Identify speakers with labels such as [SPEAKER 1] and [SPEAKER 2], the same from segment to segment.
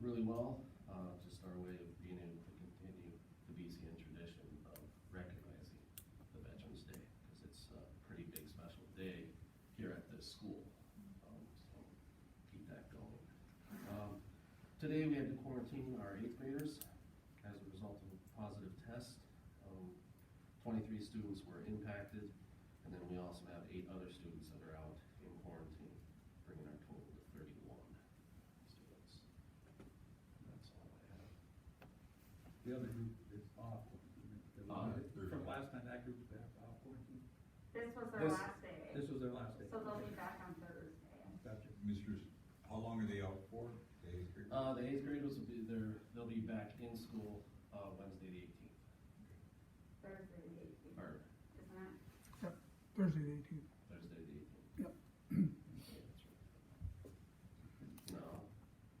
[SPEAKER 1] really well, uh, just our way of being able to continue the BCN tradition of recognizing the Veterans Day, because it's a pretty big special day here at this school. Um, so keep that going. Um, today we had to quarantine our eighth graders as a result of a positive test. Um, twenty-three students were impacted, and then we also have eight other students that are out in quarantine, bringing our total to thirty-one students. And That's all I have.
[SPEAKER 2] The other group is off. The one
[SPEAKER 1] Uh,
[SPEAKER 2] that- From last time, that group was back off quarantine.
[SPEAKER 3] This was their
[SPEAKER 2] This-
[SPEAKER 3] last day,
[SPEAKER 2] This was their last day.
[SPEAKER 3] so they'll be back on Thursday.
[SPEAKER 2] Gotcha.
[SPEAKER 4] Mr., how long are they out for? Days, three?
[SPEAKER 1] Uh, the eighth graders will be there, they'll be back in school, uh, Wednesday the eighteenth,
[SPEAKER 3] Thursday the eighteenth,
[SPEAKER 1] or
[SPEAKER 3] isn't it?
[SPEAKER 5] Thursday the eighteenth.
[SPEAKER 1] Thursday the eighteenth.
[SPEAKER 5] Yep.
[SPEAKER 1] No,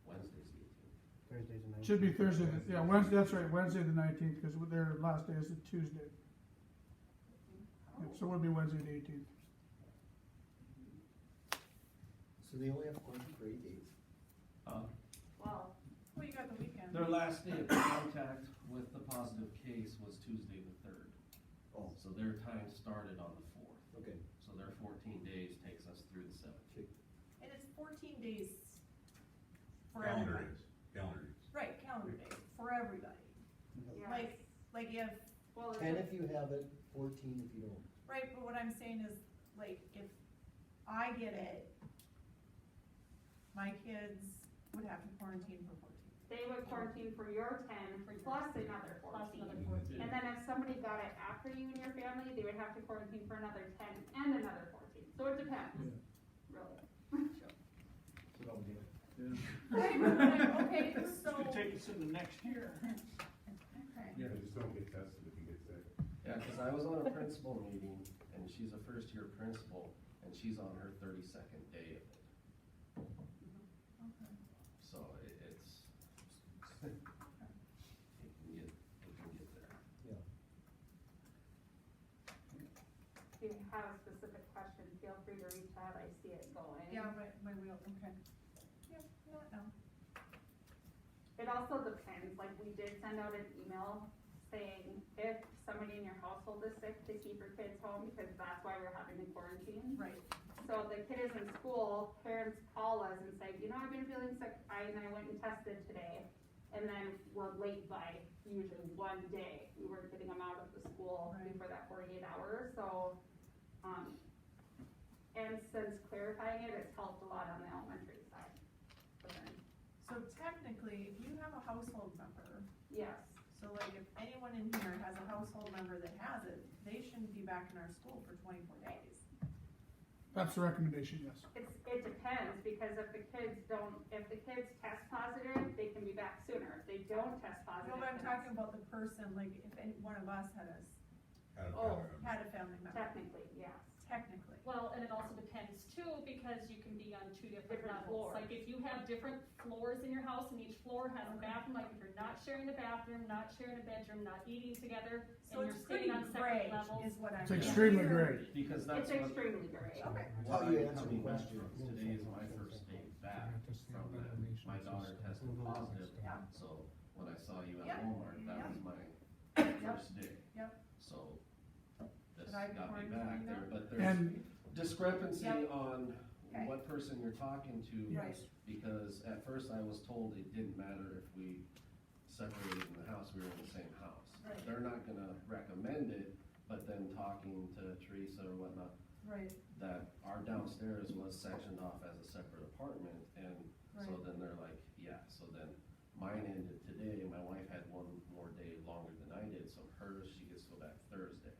[SPEAKER 1] Wednesday's the eighteenth.
[SPEAKER 6] Thursdays and nights.
[SPEAKER 5] Should be Thursday, the- yeah, Wednesday, that's right, Wednesday the nineteenth, because their last day is a Tuesday.
[SPEAKER 3] Oh,
[SPEAKER 5] Yeah, So it would be Wednesday the eighteenth.
[SPEAKER 6] So they only have quarantine for eight days.
[SPEAKER 1] Uh,
[SPEAKER 3] Well,
[SPEAKER 7] Well, you got the weekend.
[SPEAKER 1] their last day of contact with the positive case was Tuesday the third,
[SPEAKER 6] Oh,
[SPEAKER 1] so their time started on the fourth.
[SPEAKER 6] okay.
[SPEAKER 1] So their fourteen days takes us through the seventeenth.
[SPEAKER 7] And it's fourteen days for
[SPEAKER 4] Calendar
[SPEAKER 7] everybody.
[SPEAKER 4] days, calendar days.
[SPEAKER 7] Right, calendar days, for everybody.
[SPEAKER 3] yes,
[SPEAKER 7] Like- Like if,
[SPEAKER 3] well, it's
[SPEAKER 6] Ten if you have it, fourteen if you don't.
[SPEAKER 7] right, but what I'm saying is, like, if I get it, my kids would have to quarantine for fourteen.
[SPEAKER 3] They would quarantine for your ten plus another fourteen. And then if somebody got it after you and your family, they would have to quarantine for another ten and another fourteen. So it depends, really.
[SPEAKER 6] So don't do it.
[SPEAKER 2] Yeah.
[SPEAKER 7] Okay, so,
[SPEAKER 2] us to the next year.
[SPEAKER 7] okay.
[SPEAKER 2] Yeah.
[SPEAKER 8] Just don't get tested if you get sick.
[SPEAKER 1] Yeah, cause I was on a principal meeting and she's a first year principal and she's on her thirty-second day of it.
[SPEAKER 7] Okay.
[SPEAKER 1] So it, it's, it can get, it can get there.
[SPEAKER 3] If you have a specific question, feel free to reach out, I see it going.
[SPEAKER 7] Yeah, my, my wheel, okay. Yeah, no, no.
[SPEAKER 3] It also depends, like, we did send out an email saying if somebody in your household is sick, to keep your kids home, because that's why we're having the quarantine.
[SPEAKER 7] Right,
[SPEAKER 3] So if the kid is in school, parents call us and say, you know, I've been feeling sick, I, and I went and tested today. And then we're late by usually one day, we were getting them out of the school
[SPEAKER 7] Right.
[SPEAKER 3] for that forty-eight hours, so, um, and since clarifying it, it's helped a lot on the elementary side. But then,
[SPEAKER 7] so technically, if you have a household member
[SPEAKER 3] Yes.
[SPEAKER 7] So like if anyone in here has a household member that has it, they shouldn't be back in our school for twenty-four days.
[SPEAKER 5] That's the recommendation, yes.
[SPEAKER 3] It's, it depends, because if the kids don't, if the kids test positive, they can be back sooner, if they don't test
[SPEAKER 7] No,
[SPEAKER 3] positive.
[SPEAKER 7] but I'm
[SPEAKER 3] then
[SPEAKER 7] talking about the person, like if any one of us had a, s-
[SPEAKER 4] Out
[SPEAKER 3] Oh,
[SPEAKER 4] of calendar.
[SPEAKER 7] had a family
[SPEAKER 3] it's
[SPEAKER 7] member,
[SPEAKER 3] Technically, yes,
[SPEAKER 7] technically.
[SPEAKER 9] Well, and it also depends too, because you can be on two different
[SPEAKER 3] Different
[SPEAKER 9] levels.
[SPEAKER 3] floors.
[SPEAKER 9] Like if you have different floors in your house and each floor has
[SPEAKER 3] Uh-huh.
[SPEAKER 9] a
[SPEAKER 7] Okay.
[SPEAKER 9] bathroom, like if you're not sharing a bathroom, not sharing a bedroom, not eating together,
[SPEAKER 7] So
[SPEAKER 9] and you're
[SPEAKER 7] it's pretty
[SPEAKER 9] sitting on
[SPEAKER 7] gray
[SPEAKER 9] separate levels.
[SPEAKER 7] is what I'm.
[SPEAKER 5] It's extremely
[SPEAKER 7] hearing.
[SPEAKER 5] great.
[SPEAKER 1] Because that's
[SPEAKER 3] it's
[SPEAKER 1] what,
[SPEAKER 3] extremely great.
[SPEAKER 7] Okay,
[SPEAKER 1] what
[SPEAKER 6] How you
[SPEAKER 1] I'm
[SPEAKER 6] answer
[SPEAKER 1] coming back
[SPEAKER 6] questions.
[SPEAKER 1] from, today is my first day back from that. My daughter tested positive,
[SPEAKER 7] Yeah.
[SPEAKER 1] so when I saw you
[SPEAKER 7] Yeah.
[SPEAKER 1] at Walmart, that
[SPEAKER 7] Yeah.
[SPEAKER 1] was my first day.
[SPEAKER 7] Yep.
[SPEAKER 1] So, this
[SPEAKER 7] Should I be
[SPEAKER 1] got me
[SPEAKER 7] quarantining
[SPEAKER 1] back there,
[SPEAKER 7] them?
[SPEAKER 1] but there's
[SPEAKER 5] And,
[SPEAKER 1] discrepancy
[SPEAKER 7] Yep.
[SPEAKER 1] on
[SPEAKER 7] Okay.
[SPEAKER 1] what person you're talking to.
[SPEAKER 7] right,
[SPEAKER 1] Because at first I was told it didn't matter if we separated in the house, we were in the same house.
[SPEAKER 7] Right.
[SPEAKER 1] They're not gonna recommend it, but then talking to Teresa or whatnot,
[SPEAKER 7] right,
[SPEAKER 1] that our downstairs was sectioned off as a separate apartment, and so
[SPEAKER 7] right.
[SPEAKER 1] then they're like, yeah, so then mine ended today, my wife had one more day longer than I did, so hers, she gets to go back Thursday.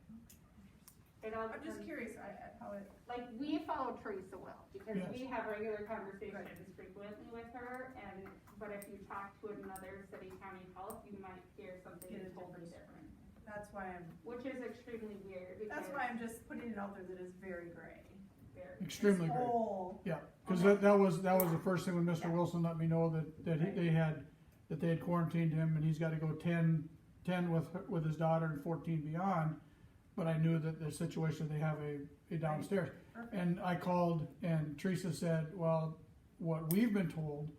[SPEAKER 3] It all
[SPEAKER 7] I'm just
[SPEAKER 3] depends,
[SPEAKER 7] curious, I, I, how it,
[SPEAKER 3] like, we follow Teresa well, because we have regular conversations frequently with her, and, but if you talk to another city county health, you might hear something
[SPEAKER 7] Get a
[SPEAKER 3] totally
[SPEAKER 7] different
[SPEAKER 3] different.
[SPEAKER 7] that's why I'm,
[SPEAKER 3] Which is extremely weird, because.
[SPEAKER 7] that's why I'm just putting it out there that it's very gray.
[SPEAKER 3] very-
[SPEAKER 5] extremely
[SPEAKER 7] This
[SPEAKER 5] great.
[SPEAKER 7] whole,
[SPEAKER 5] Yeah, because that, that was, that was the first thing when Mr.
[SPEAKER 7] Yeah.
[SPEAKER 5] Wilson let me know that, that he- they had, that they had quarantined him and he's gotta go 10 10 with, her- with his daughter and fourteen beyond. But I knew that the situation, they have a, a downstairs.
[SPEAKER 7] perfect.
[SPEAKER 5] And I called and Teresa said, well, what we've been told